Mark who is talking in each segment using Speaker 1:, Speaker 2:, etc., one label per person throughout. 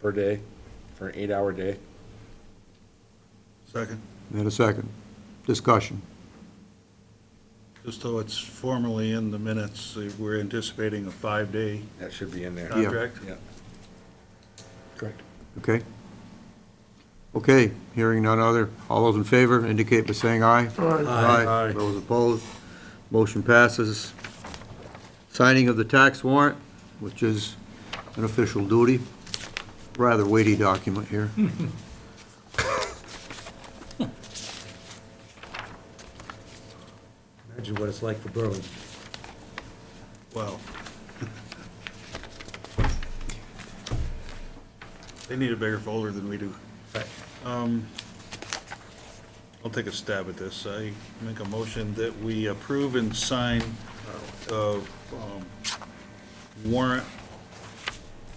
Speaker 1: per day for an eight-hour day.
Speaker 2: Second,
Speaker 3: And a second. Discussion.
Speaker 2: just so it's formally in the minutes, uh, we're anticipating a five-day
Speaker 1: That should be in there.
Speaker 3: Yeah.
Speaker 2: contract.
Speaker 1: Yeah. Correct.
Speaker 3: Okay? Okay, hearing none other. All those in favor indicate by saying aye.
Speaker 2: Aye.
Speaker 3: Those opposed, motion passes. Signing of the tax warrant, which is an official duty. Rather weighty document here.
Speaker 4: Imagine what it's like for Berlin.
Speaker 2: Well. They need a bigger folder than we do. Um, I'll take a stab at this. I make a motion that we approve and sign of um, warrant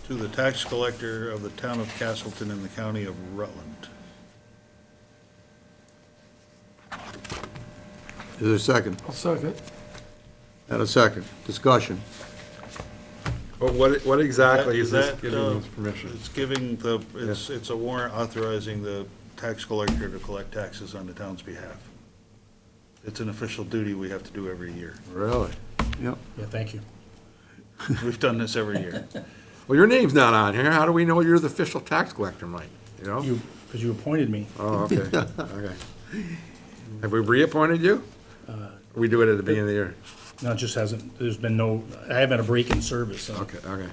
Speaker 2: to the tax collector of the town of Castleton in the county of Rutland.
Speaker 3: Is there a second?
Speaker 5: I'll second.
Speaker 3: And a second. Discussion.
Speaker 4: But what, what exactly is this
Speaker 2: That-
Speaker 4: giving
Speaker 2: uh,
Speaker 4: us permission?
Speaker 2: It's giving the, it's, it's a warrant authorizing the tax collector to collect taxes on the town's behalf. It's an official duty we have to do every year.
Speaker 3: Really? Yep.
Speaker 4: Yeah, thank you.
Speaker 2: We've done this every year.
Speaker 4: Well, your name's not on here. How do we know you're the official tax collector, Mike? You know?
Speaker 6: You, because you appointed me.
Speaker 4: Oh, okay, okay. Have we reappointed you?
Speaker 1: Uh,
Speaker 4: We do it at the beginning of the year.
Speaker 6: No, it just hasn't, there's been no, I haven't had a break in service, so.
Speaker 4: Okay, okay.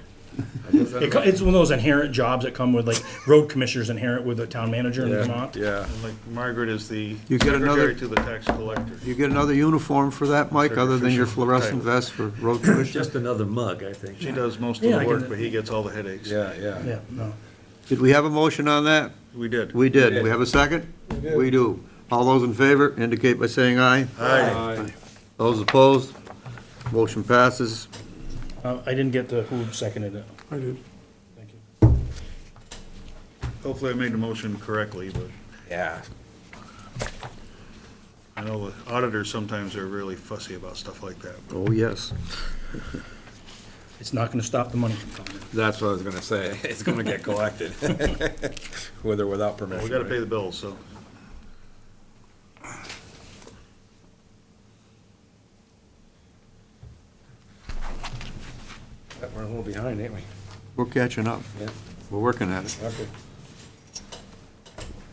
Speaker 6: It co- It's one of those inherent jobs that come with, like, road commissioners inherent with a town manager in
Speaker 4: Yeah,
Speaker 6: Vermont.
Speaker 4: Yeah.
Speaker 2: And Like Margaret is the
Speaker 3: You get another-
Speaker 2: secretary to the tax collector.
Speaker 3: You get another uniform for that, Mike, other than your fluorescent vest for road commission?
Speaker 7: Just another mug, I think.
Speaker 2: She does most of the
Speaker 6: Yeah, I
Speaker 2: work,
Speaker 6: can-
Speaker 2: but he gets all the headaches.
Speaker 1: Yeah, yeah.
Speaker 6: Yeah, no.
Speaker 3: Did we have a motion on that?
Speaker 2: We did.
Speaker 3: We did. We have a second? We do. All those in favor indicate by saying aye.
Speaker 1: Aye.
Speaker 3: Those opposed? Motion passes.
Speaker 6: Uh, I didn't get to who seconded it.
Speaker 5: I did.
Speaker 6: Thank you.
Speaker 2: Hopefully I made the motion correctly, but
Speaker 1: Yeah.
Speaker 2: I know the auditors sometimes are really fussy about stuff like that.
Speaker 3: Oh, yes.
Speaker 6: It's not gonna stop the money from coming.
Speaker 1: That's what I was gonna say. It's gonna get collected, with or without
Speaker 2: Well,
Speaker 1: permission.
Speaker 2: We gotta
Speaker 1: right?
Speaker 2: pay the bills, so.
Speaker 1: We're a little behind, ain't we?
Speaker 3: We're catching up.
Speaker 1: Yeah.
Speaker 3: We're working at it.
Speaker 1: Okay.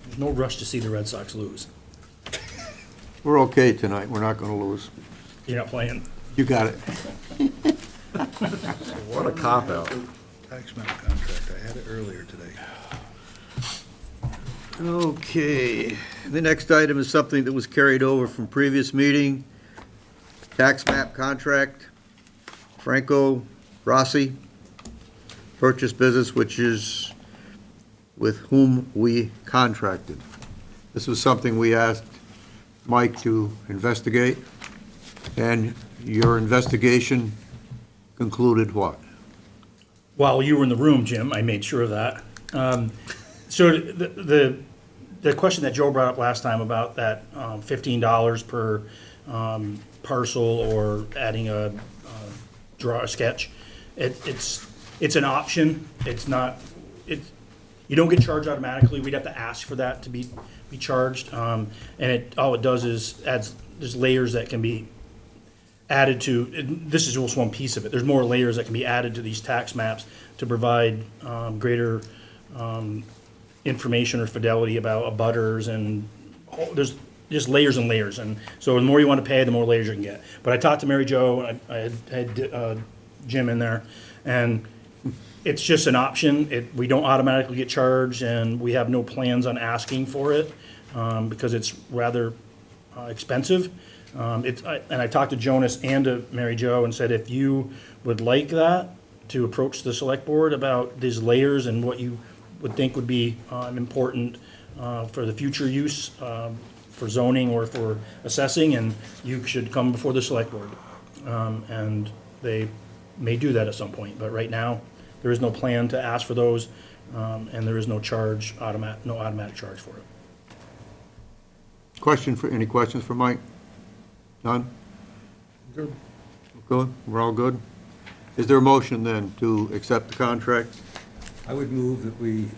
Speaker 6: There's no rush to see the Red Sox lose.
Speaker 3: We're okay tonight. We're not gonna lose.
Speaker 6: You're not playing.
Speaker 3: You got it.
Speaker 4: What a cop-out.
Speaker 2: Tax map contract, I had it earlier today.
Speaker 3: Okay, the next item is something that was carried over from previous meeting. Tax map contract, Franco Rossi, purchase business, which is with whom we contracted. This was something we asked Mike to investigate, and your investigation concluded what?
Speaker 6: While you were in the room, Jim, I made sure of that. Um, So the, the, the question that Joe brought up last time about that um, fifteen dollars per um, parcel or adding a, uh, draw a sketch, it, it's, it's an option, it's not, it, you don't get charged automatically, we'd have to ask for that to be, be charged. Um, And it, all it does is adds, there's layers that can be added to, and this is just one piece of it, there's more layers that can be added to these tax maps to provide um, greater um, information or fidelity about abutters and, all- there's just layers and layers, and so the more you want to pay, the more layers you can get. But I talked to Mary Jo, and I I had- had uh, Jim in there, and it's just an option. It, we don't automatically get charged, and we have no plans on asking for it, um, because it's rather uh, expensive. Um, it's, I- and I talked to Jonas and to Mary Jo and said, if you would like that, to approach the select board about these layers and what you would think would be, um, important, uh, for the future use, um, for zoning or for assessing, and you should come before the select board. Um, and they may do that at some point, but right now, there is no plan to ask for those, um, and there is no charge, automatic, no automatic charge for it.
Speaker 3: Question for, any questions for Mike? None? Good. Good, we're all good? Is there a motion then to accept the contract?
Speaker 5: I would move that we